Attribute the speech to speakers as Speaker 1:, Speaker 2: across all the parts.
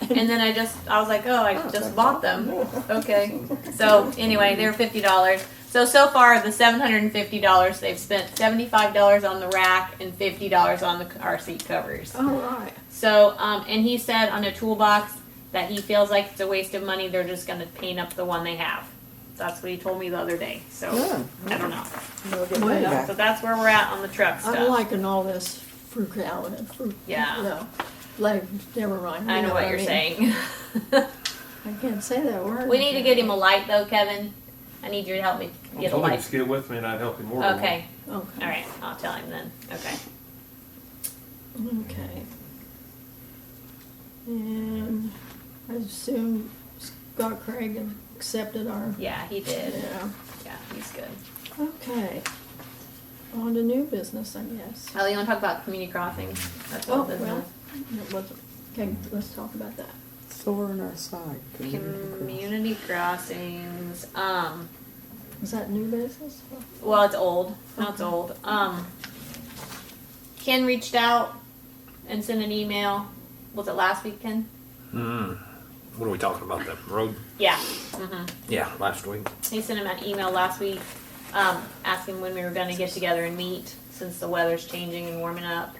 Speaker 1: and then I just I was like, oh, I
Speaker 2: Oh,
Speaker 1: just
Speaker 2: okay.
Speaker 1: bought them. Okay. So anyway, they're fifty dollars. So so far the seven hundred and fifty dollars they've spent seventy five dollars on the rack and fifty dollars on the car seat covers.
Speaker 2: All
Speaker 3: Oh,
Speaker 2: right.
Speaker 1: So um, and he said on a toolbox that he feels like it's a waste of money. They're just going to paint up the one they have. That's what he told me the other day. So
Speaker 2: Yeah.
Speaker 1: I don't know.
Speaker 2: Well,
Speaker 1: So that's where we're at on the truck stuff.
Speaker 3: I'm liking all this frugality. Fru-
Speaker 1: Yeah.
Speaker 3: no, Like, never mind.
Speaker 1: I
Speaker 3: you
Speaker 1: know what
Speaker 3: I
Speaker 1: you're
Speaker 3: mean.
Speaker 1: saying.
Speaker 3: I can't say that word.
Speaker 1: we need to get him a light though, Kevin. I need you to help me
Speaker 4: I
Speaker 1: get a
Speaker 4: told him
Speaker 1: light.
Speaker 4: to get with me and I'd help him order one.
Speaker 1: Okay.
Speaker 3: Okay.
Speaker 1: All right. I'll tell him then. Okay.
Speaker 3: Okay. And I assume Scott Craig accepted our.
Speaker 1: Yeah, he did.
Speaker 3: Yeah.
Speaker 1: Yeah, he's good.
Speaker 3: Okay. On to new business, I guess.
Speaker 1: Oh, you want to talk about community crossing? That's all
Speaker 3: Oh,
Speaker 1: business.
Speaker 3: well, it wasn't. Okay, let's talk about that.
Speaker 2: So we're on our side.
Speaker 1: Community crossings. Um,
Speaker 3: Is that new business?
Speaker 1: well, it's old. Now it's old. Um, Ken reached out and sent an email. Was it last week, Ken?
Speaker 5: Mm. What are we talking about? The road?
Speaker 1: Yeah. hmm
Speaker 5: Yeah, last week.
Speaker 1: He sent him an email last week um, asking when we were going to get together and meet since the weather's changing and warming up.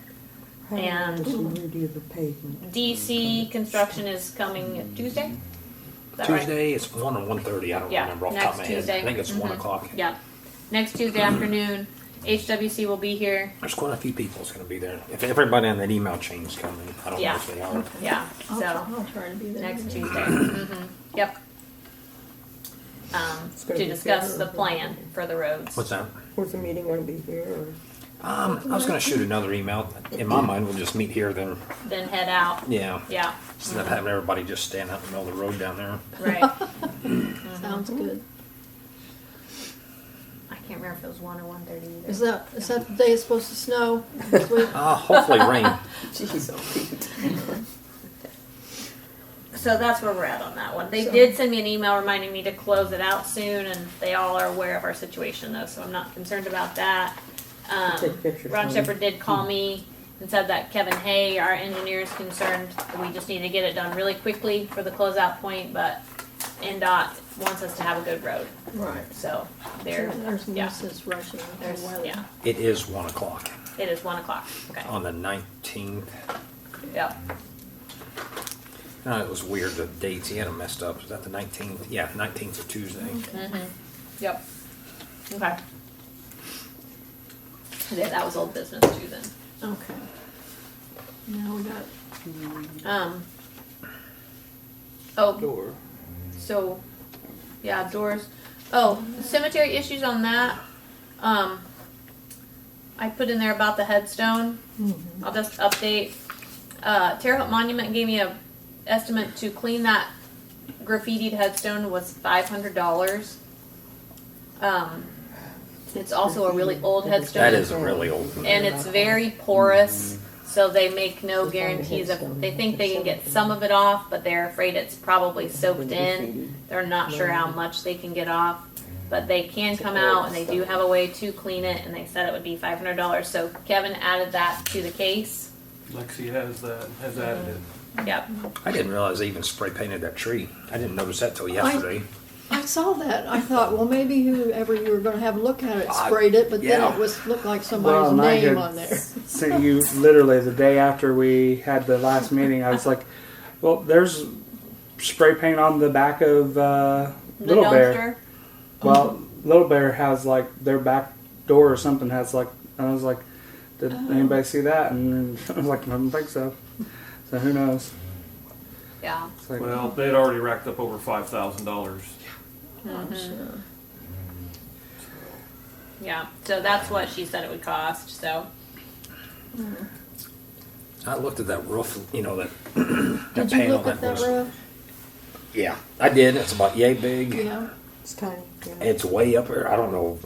Speaker 1: And-
Speaker 2: Continuity of the pavement.
Speaker 1: DC construction is coming Tuesday? Is that right?
Speaker 5: Tuesday, it's one or one thirty. I don't
Speaker 1: Yeah,
Speaker 5: remember off the top of my
Speaker 1: next
Speaker 5: head.
Speaker 1: Tuesday.
Speaker 5: I think it's one
Speaker 1: Mhm.
Speaker 5: o'clock.
Speaker 1: Yeah. Next Tuesday afternoon, HWC will be here.
Speaker 5: There's quite a few people that's going to be there. If everybody in that email chain's coming, I don't
Speaker 1: Yeah.
Speaker 5: know if they are.
Speaker 1: Yeah.
Speaker 3: I'll,
Speaker 1: So
Speaker 3: I'll try to be there.
Speaker 1: next Tuesday. hmm Yep. Um,
Speaker 2: It's gonna
Speaker 1: to
Speaker 2: be
Speaker 1: discuss
Speaker 2: good.
Speaker 1: the plan for the roads.
Speaker 5: What's that?
Speaker 2: Where's the meeting gonna be here or?
Speaker 5: Um, I was going to shoot another email. In my mind, we'll just meet here then.
Speaker 1: Then head out.
Speaker 5: Yeah.
Speaker 1: Yeah.
Speaker 5: Instead of having everybody just stand out in the middle of the road down there.
Speaker 1: Right.
Speaker 3: Sounds good.
Speaker 1: I can't remember if it was one or one thirty either.
Speaker 3: Is that is that the day it's supposed to snow? this week?
Speaker 5: Uh, hopefully rain.
Speaker 2: Jeez, oh, Pete.
Speaker 1: So that's where we're at on that one. They
Speaker 3: So-
Speaker 1: did send me an email reminding me to close it out soon, and they all are aware of our situation though, so I'm not concerned about that. Um,
Speaker 2: Take pictures,
Speaker 1: Ron
Speaker 2: honey. Hmm.
Speaker 1: Shepherd did call me and said that Kevin Hay, our engineer, is concerned. that We just need to get it done really quickly for the closeout point, but NDOT wants us to have a good road,
Speaker 3: Right.
Speaker 1: so they're,
Speaker 3: There's
Speaker 1: yeah,
Speaker 3: Mrs. Rushing.
Speaker 1: there's, yeah.
Speaker 5: It is one o'clock
Speaker 1: It is one o'clock, okay,
Speaker 5: on the nineteenth.
Speaker 1: yeah,
Speaker 5: No, it was weird. The dates he had them messed up. Is that the nineteenth? Yeah, nineteenth of Tuesday.
Speaker 1: Mm-hmm. yep, okay. Yeah, that was old business too then.
Speaker 3: Okay. Now we got,
Speaker 1: Um. Oh,
Speaker 2: Door.
Speaker 1: so, yeah, doors. Oh, cemetery issues on that. Um, I put in there about the headstone.
Speaker 5: Mm-hmm.
Speaker 1: I'll just update. Uh, Terre Haute Monument gave me a estimate to clean that graffitied headstone was five hundred dollars. Um, it's also a really old headstone.
Speaker 5: That is a really old. one.
Speaker 1: and it's very porous. So they make no guarantees of. They think they can get some of it off, but they're afraid it's probably soaked in. They're not sure how much they can get off, but they can come out and they do have a way to clean it. And they said it would be five hundred dollars. So Kevin added that to the case.
Speaker 4: Lexi has that, has added it.
Speaker 1: Yep.
Speaker 5: I didn't realize they even spray painted that tree. I didn't notice that till yesterday.
Speaker 3: I saw that, I thought, well, maybe whoever you were gonna have a look at it
Speaker 5: I-
Speaker 3: sprayed it, but then
Speaker 5: yeah.
Speaker 3: it was, looked like
Speaker 6: Well,
Speaker 3: somebody's
Speaker 6: and I
Speaker 3: name
Speaker 6: had
Speaker 3: on there.
Speaker 6: sent you literally the day after we had the last meeting. I was like, "Well, there's spray paint on the back of uh,
Speaker 1: The
Speaker 6: Little Bear."
Speaker 1: dumpster.
Speaker 6: Well, Little Bear has like their back door or something has like. I was like, "Did
Speaker 1: Oh.
Speaker 6: anybody see that?" And I was like, "I don't think so." So who knows?
Speaker 1: Yeah.
Speaker 6: It's like,
Speaker 4: Well, they'd already racked up over five thousand dollars.
Speaker 3: I'm sure.
Speaker 1: Yeah. So that's what she said it would cost. So
Speaker 5: I looked at that roof, you know, that, that
Speaker 3: Did you
Speaker 5: panel
Speaker 3: look at that
Speaker 5: was.
Speaker 3: roof?
Speaker 5: Yeah, I did. It's about yay big.
Speaker 3: Yeah.
Speaker 2: It's tiny. yeah.
Speaker 5: It's way up there. I don't know.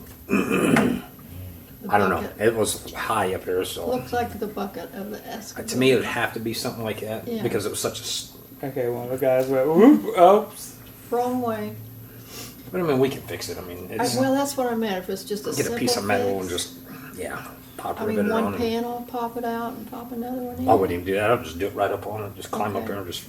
Speaker 5: I don't know.
Speaker 3: bucket.
Speaker 5: It was high up there, so.
Speaker 3: Looks like the bucket of the
Speaker 5: Uh,
Speaker 3: excavator.
Speaker 5: to me, it would have to be something like that
Speaker 3: Yeah.
Speaker 5: because it was such a. s-
Speaker 6: Okay, one of the guys went, "Whoop! oh, Oops!"
Speaker 3: Wrong way.
Speaker 5: But I mean, we can fix it. I mean,
Speaker 3: I-
Speaker 5: it's,
Speaker 3: Well, that's what I meant, if it's just a
Speaker 5: get
Speaker 3: simple
Speaker 5: a piece of metal and
Speaker 3: fix.
Speaker 5: just, yeah, pop
Speaker 3: I
Speaker 5: a ribbon
Speaker 3: mean,
Speaker 5: on
Speaker 3: one
Speaker 5: it.
Speaker 3: panel, pop it out and pop another one in.
Speaker 5: I wouldn't even do that. I'd just do it right up on it. Just climb up
Speaker 3: Okay.
Speaker 5: there and just